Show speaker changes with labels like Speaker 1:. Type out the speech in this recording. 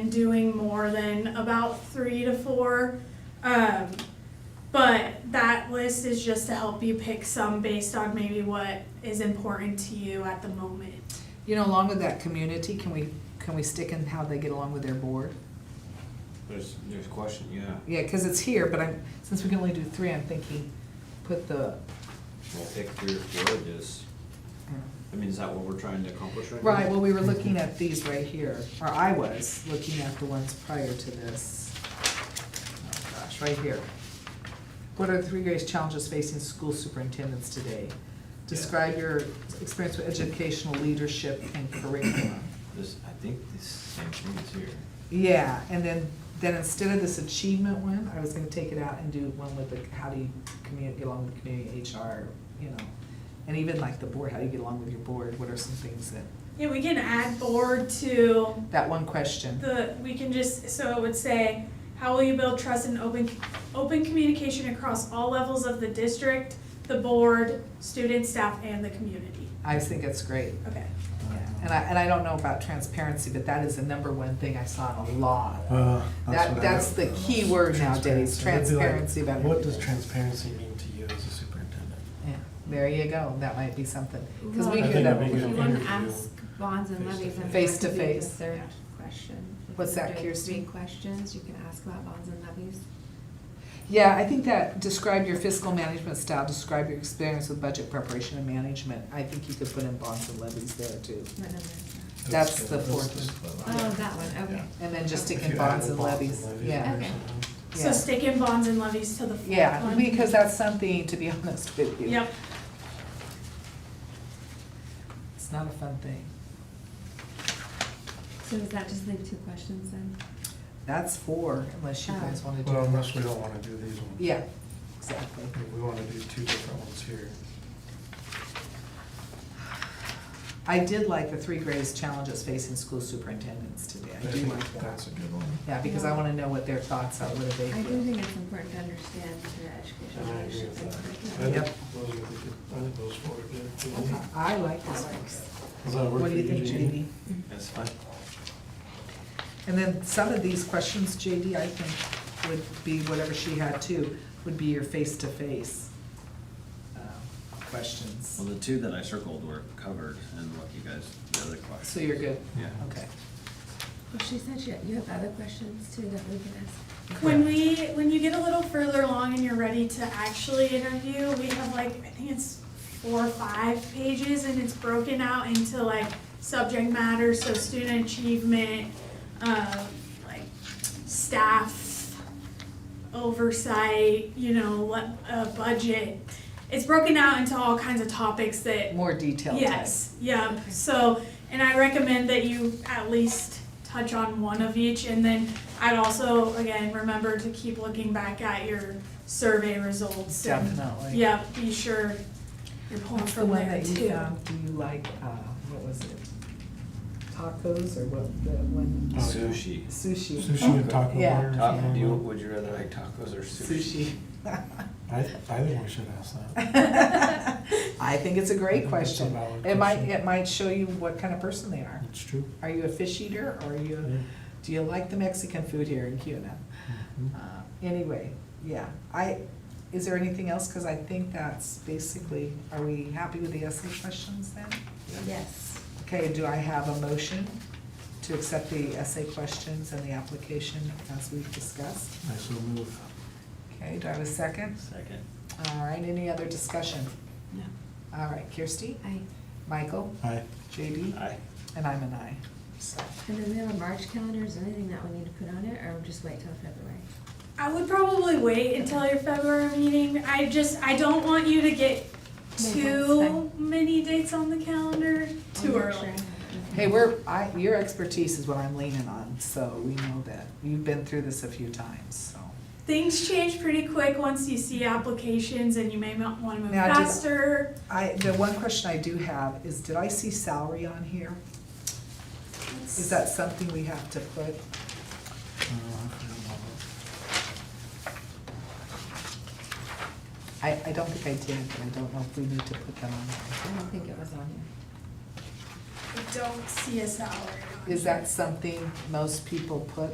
Speaker 1: and doing more than about three to four. Um, but that list is just to help you pick some based on maybe what is important to you at the moment.
Speaker 2: You know, along with that community, can we, can we stick in how they get along with their board?
Speaker 3: There's, there's question, yeah.
Speaker 2: Yeah, because it's here, but I'm, since we can only do three, I'm thinking, put the,
Speaker 3: We'll pick three or four of this. I mean, is that what we're trying to accomplish right now?
Speaker 2: um, right, well, we were looking at these right here, or I was looking at the ones prior to this. Oh Gosh, right here. What are the three greatest challenges facing school superintendents today? Describe your experience with educational leadership and curriculum.
Speaker 3: This, I think this same thing is here.
Speaker 2: Yeah, and then, then instead of this achievement one, I was gonna take it out and do one with the, how do you commu- get along with the community, HR, you know? And even like the board, how do you get along with your board, what are some things that,
Speaker 1: Yeah, we can add board to
Speaker 2: that one question.
Speaker 1: The, we can just, so it would say, how will you build trust and open, open communication across all levels of the district, the board, students, staff, and the community?
Speaker 2: I think it's great,
Speaker 1: Okay.
Speaker 2: yeah, and I, and I don't know about transparency, but that is the number one thing I saw in a lot.
Speaker 4: Uh,
Speaker 2: That-
Speaker 4: what I
Speaker 2: that's
Speaker 4: got.
Speaker 2: the key word nowadays,
Speaker 4: It'd be like,
Speaker 2: transparency about
Speaker 4: What does
Speaker 2: everything.
Speaker 4: transparency mean to you as a superintendent?
Speaker 2: Yeah, there you go, that might be something, cause we
Speaker 4: I
Speaker 2: hear
Speaker 4: think
Speaker 2: that. when
Speaker 4: that'd be
Speaker 2: we-
Speaker 4: good.
Speaker 5: You wanna ask bonds and levies, I mean, that
Speaker 2: Face to
Speaker 5: could be the
Speaker 2: face,
Speaker 5: third
Speaker 2: yeah.
Speaker 5: question. If
Speaker 2: What's
Speaker 5: you're
Speaker 2: that,
Speaker 5: doing
Speaker 2: Kirsty?
Speaker 5: three questions, you can ask about bonds and levies.
Speaker 2: Yeah, I think that, describe your fiscal management style, describe your experience with budget preparation and management. I think you could put in bonds and levies there too.
Speaker 5: What number is that?
Speaker 2: That's the
Speaker 4: good.
Speaker 2: fourth
Speaker 4: That's
Speaker 2: one.
Speaker 4: the-
Speaker 5: Oh, that one, okay.
Speaker 4: Yeah.
Speaker 2: And then just stick
Speaker 4: If
Speaker 2: in
Speaker 4: you
Speaker 2: bonds
Speaker 4: add
Speaker 2: and
Speaker 4: bonds
Speaker 2: levies,
Speaker 4: levies
Speaker 2: yeah.
Speaker 4: or
Speaker 5: Okay.
Speaker 4: something.
Speaker 1: So stick in bonds and levies to the fourth one.
Speaker 2: Yeah, because that's something, to be honest with you.
Speaker 1: Yep,
Speaker 2: It's not a fun thing.
Speaker 5: So is that just like two questions then?
Speaker 2: That's four, unless you guys wanna do.
Speaker 4: Well, unless we don't wanna do these ones.
Speaker 2: Yeah, exactly.
Speaker 4: We wanna do two different ones here.
Speaker 2: I did like the three greatest challenges facing school superintendents today. I do
Speaker 4: think
Speaker 2: like that.
Speaker 4: That's a good one.
Speaker 2: Yeah, because I wanna know what their thoughts are, what do they
Speaker 5: I do
Speaker 2: feel?
Speaker 5: think it's important to understand your
Speaker 4: And I
Speaker 5: educational
Speaker 4: agree
Speaker 5: leadership. and
Speaker 4: with that. I
Speaker 5: curriculum.
Speaker 2: Yep.
Speaker 4: think those are the good- I think those four are good.
Speaker 2: Okay, I like this one.
Speaker 4: Does that work
Speaker 2: What
Speaker 4: for
Speaker 2: do you
Speaker 4: you,
Speaker 2: think,
Speaker 4: Jeannie?
Speaker 2: JD?
Speaker 3: That's fine.
Speaker 2: And then some of these questions, JD, I think would be whatever she had too, would be your face-to-face um, questions.
Speaker 3: Well, the two that I circled were covered and what you guys, the other question.
Speaker 2: So you're good?
Speaker 3: Yeah.
Speaker 2: Okay.
Speaker 5: Well, she said you, you have other questions too that we can ask.
Speaker 1: when we, when you get a little further along and you're ready to actually interview, we have like, I think it's four or five pages and it's broken out into like subject matter, so student achievement, um, like staff oversight, you know, what, uh, budget. It's broken out into all kinds of topics that
Speaker 2: More detailed type.
Speaker 1: Yes, yeah,
Speaker 5: Okay.
Speaker 1: so, and I recommend that you at least touch on one of each, and then I'd also, again, remember to keep looking back at your survey results. and-
Speaker 2: Definitely.
Speaker 1: Yeah, be sure you're pulling
Speaker 2: What's the
Speaker 1: from
Speaker 2: one
Speaker 1: there
Speaker 2: that you
Speaker 1: too.
Speaker 2: found, do you like, uh, what was it? Tacos or what, the one,
Speaker 4: Oh, yeah.
Speaker 3: Sushi.
Speaker 2: sushi?
Speaker 4: Sushi and taco
Speaker 2: Yeah.
Speaker 4: bar or
Speaker 3: Ta-
Speaker 4: something.
Speaker 3: do you, would you rather like tacos or sushi?
Speaker 2: Sushi.
Speaker 4: I, I think we should ask that.
Speaker 2: I think it's a
Speaker 4: I think that's
Speaker 2: great
Speaker 4: a
Speaker 2: question.
Speaker 4: valid
Speaker 2: It might,
Speaker 4: question.
Speaker 2: it might show you what kind of person they are.
Speaker 4: It's true.
Speaker 2: Are you a fish eater or are you a
Speaker 4: Yeah.
Speaker 2: Do you like the Mexican food here in Cuna?
Speaker 4: Mhm.
Speaker 2: Uh, Anyway, yeah, I, is there anything else? Because I think that's basically, are we happy with the essay questions then?
Speaker 5: Yes.
Speaker 2: Okay, do I have a motion to accept the essay questions and the application as we've discussed?
Speaker 4: I so move.
Speaker 2: Okay, do I have a second?
Speaker 3: Second.
Speaker 2: All right, any other discussion?
Speaker 5: No.
Speaker 2: All right, Kirsty,
Speaker 5: I,
Speaker 2: Michael,
Speaker 4: Aye.
Speaker 2: JD,
Speaker 3: Aye.
Speaker 2: and I'm an aye. So,
Speaker 5: and then we have a March calendar, is there anything that we need to put on it or just wait till February?
Speaker 1: I would probably wait until your February meeting, I just, I don't want you to get
Speaker 5: No,
Speaker 1: too
Speaker 5: that's
Speaker 1: many dates on the calendar too
Speaker 5: I'll make sure
Speaker 1: early.
Speaker 5: I have
Speaker 2: hey,
Speaker 5: it.
Speaker 2: we're, I, your expertise is what I'm leaning on, so we know that. You've been through this a few times, so.
Speaker 1: Things change pretty quick once you see applications and you may not wanna move
Speaker 2: Now, did-
Speaker 1: faster.
Speaker 2: I, the one question I do have is, did I see salary on here? Is that something we have to put?
Speaker 4: Uh, I forgot about that.
Speaker 2: I, I don't think I did, but I don't know if we need to put that on.
Speaker 5: I don't think it was on here.
Speaker 1: don't see a salary on
Speaker 2: Is
Speaker 1: here.
Speaker 2: that something most people put